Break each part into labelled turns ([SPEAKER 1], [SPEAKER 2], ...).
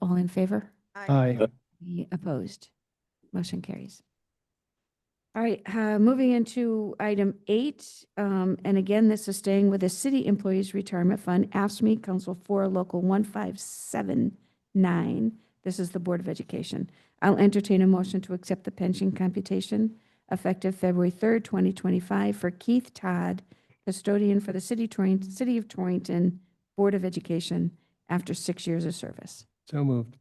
[SPEAKER 1] in favor?
[SPEAKER 2] Aye.
[SPEAKER 1] Any opposed? Motion carries. All right, uh, moving into item eight, um, and again, this is staying with the City Employees Retirement Fund, AFSMI Council Four Local 1579. This is the Board of Education. I'll entertain a motion to accept the pension computation effective February 3rd, 2025 for Keith Todd, custodian for the City Torrington, City of Torrington Board of Education after six years of service.
[SPEAKER 2] So moved.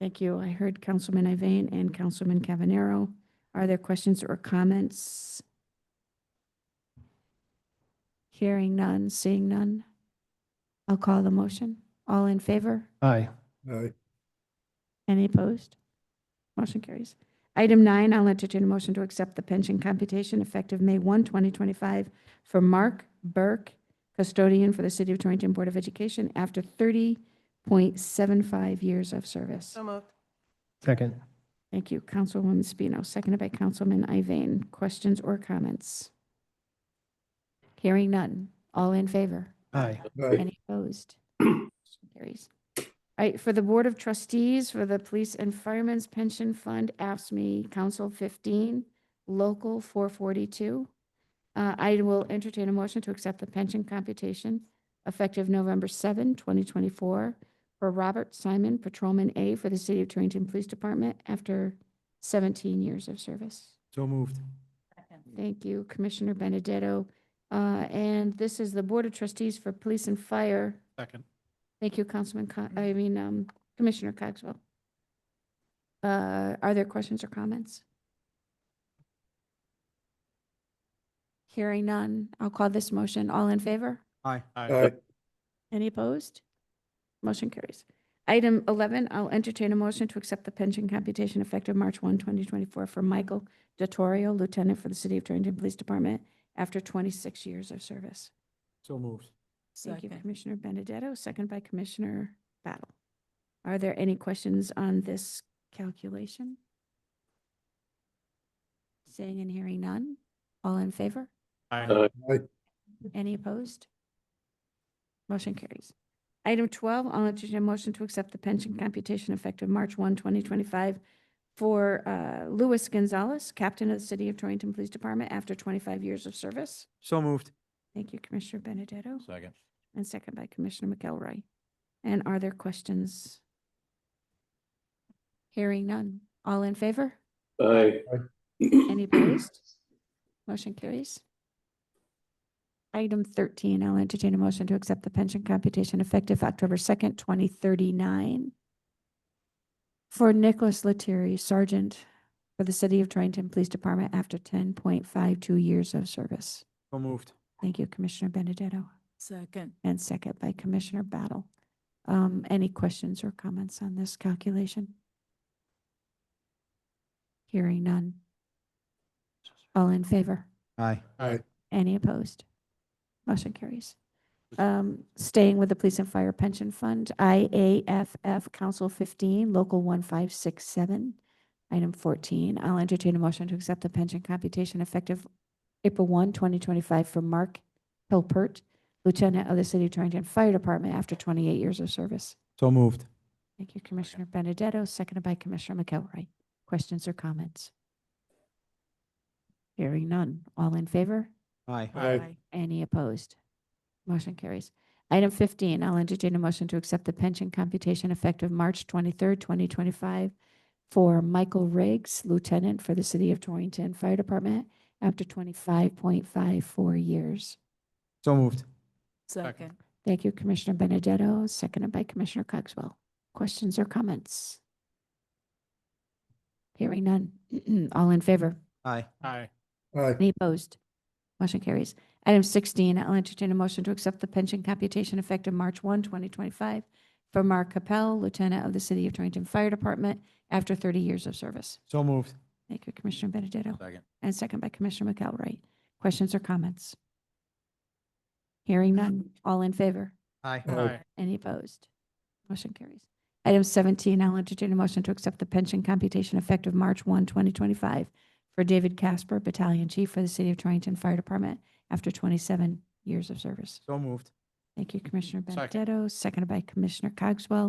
[SPEAKER 1] Thank you. I heard Councilman Iveyne and Councilman Cavanero. Are there questions or comments? Hearing none, seeing none. I'll call the motion. All in favor?
[SPEAKER 2] Aye.
[SPEAKER 3] Aye.
[SPEAKER 1] Any opposed? Motion carries. Item nine, I'll entertain a motion to accept the pension computation effective May 1, 2025 for Mark Burke, custodian for the City of Torrington Board of Education after 30.75 years of service.
[SPEAKER 4] So moved.
[SPEAKER 2] Second.
[SPEAKER 1] Thank you, Councilwoman Spino, seconded by Councilman Iveyne. Questions or comments? Hearing none. All in favor?
[SPEAKER 2] Aye.
[SPEAKER 3] Aye.
[SPEAKER 1] Any opposed? Motion Carries. All right, for the Board of Trustees for the Police and Firemen's Pension Fund, AFSMI, E, Council 15, Local 442. Uh, I will entertain a motion to accept the pension computation effective November 7, 2024 for Robert Simon, Patrolman A for the City of Torrington Police Department after 17 years of service.
[SPEAKER 3] So moved.
[SPEAKER 1] Thank you, Commissioner Benedetto. Uh, And this is the Board of Trustees for Police and Fire.
[SPEAKER 3] Second.
[SPEAKER 1] Thank you, Councilman, Co- I mean, um, Commissioner Cogswell. Uh, Are there questions or comments? Hearing none, I'll call this motion. All in favor?
[SPEAKER 2] Aye.
[SPEAKER 3] Aye.
[SPEAKER 1] Any opposed? Motion carries. Item 11, I'll entertain a motion to accept the pension computation effective March 1, 2024 for Michael Dottorio, Lieutenant for the City of Torrington Police Department, after 26 years of service.
[SPEAKER 3] So moved.
[SPEAKER 1] Thank you, Commissioner Benedetto, second by Commissioner Battle. Are there any questions on this calculation? Seeing and hearing none. All in favor?
[SPEAKER 3] Aye.
[SPEAKER 1] Any opposed? Motion carries. Item 12, I'll entertain a motion to accept the pension computation effective March 1, 2025 for uh, Luis Gonzalez, Captain of the City of Torrington Police Department after 25 years of service.
[SPEAKER 2] So moved.
[SPEAKER 1] Thank you, Commissioner Benedetto,
[SPEAKER 3] Second.
[SPEAKER 1] and second by Commissioner McElroy. And are there questions? Hearing none. All in favor?
[SPEAKER 3] Aye.
[SPEAKER 1] Any opposed? Motion carries. Item 13, I'll entertain a motion to accept the pension computation effective October 2nd, 2039 for Nicholas Lettieri, Sergeant for the City of Torrington Police Department after 10.52 years of service.
[SPEAKER 2] So moved.
[SPEAKER 1] Thank you, Commissioner Benedetto,
[SPEAKER 4] Second.
[SPEAKER 1] and second by Commissioner Battle. Um, Any questions or comments on this calculation? Hearing none. All in favor?
[SPEAKER 2] Aye.
[SPEAKER 3] Aye.
[SPEAKER 1] Any opposed? Motion carries. Um, Staying with the Police and Fire Pension Fund, IAFF Council 15, Local 1567, Item 14. I'll entertain a motion to accept the pension computation effective April 1, 2025 for Mark Hilpert, Lieutenant of the City of Torrington Fire Department after 28 years of service.
[SPEAKER 2] So moved.
[SPEAKER 1] Thank you, Commissioner Benedetto, seconded by Commissioner McElroy. Questions or comments? Hearing none. All in favor?
[SPEAKER 2] Aye.
[SPEAKER 3] Aye.
[SPEAKER 1] Any opposed? Motion carries. Item 15, I'll entertain a motion to accept the pension computation effective March 23rd, 2025 for Michael Riggs, Lieutenant for the City of Torrington Fire Department, after 25.54 years.
[SPEAKER 2] So moved.
[SPEAKER 4] Second.
[SPEAKER 1] Thank you, Commissioner Benedetto, seconded by Commissioner Cogswell. Questions or comments? Hearing none. All in favor?
[SPEAKER 2] Aye.
[SPEAKER 3] Aye.
[SPEAKER 1] Any opposed? Motion carries. Item 16, I'll entertain a motion to accept the pension computation effective March 1, 2025 for Mark Capel, Lieutenant of the City of Torrington Fire Department, after 30 years of service.
[SPEAKER 2] So moved.
[SPEAKER 1] Thank you, Commissioner Benedetto,
[SPEAKER 3] Second.
[SPEAKER 1] and second by Commissioner McElroy. Questions or comments? Hearing none. All in favor?
[SPEAKER 2] Aye.
[SPEAKER 3] Aye.
[SPEAKER 1] Any opposed? Motion carries. Item 17, I'll entertain a motion to accept the pension computation effective March 1, 2025 for David Casper, Battalion Chief for the City of Torrington Fire Department after 27 years of service.
[SPEAKER 2] So moved.
[SPEAKER 1] Thank you, Commissioner
[SPEAKER 3] Second.
[SPEAKER 1] Benedetto, seconded by Commissioner Cogswell.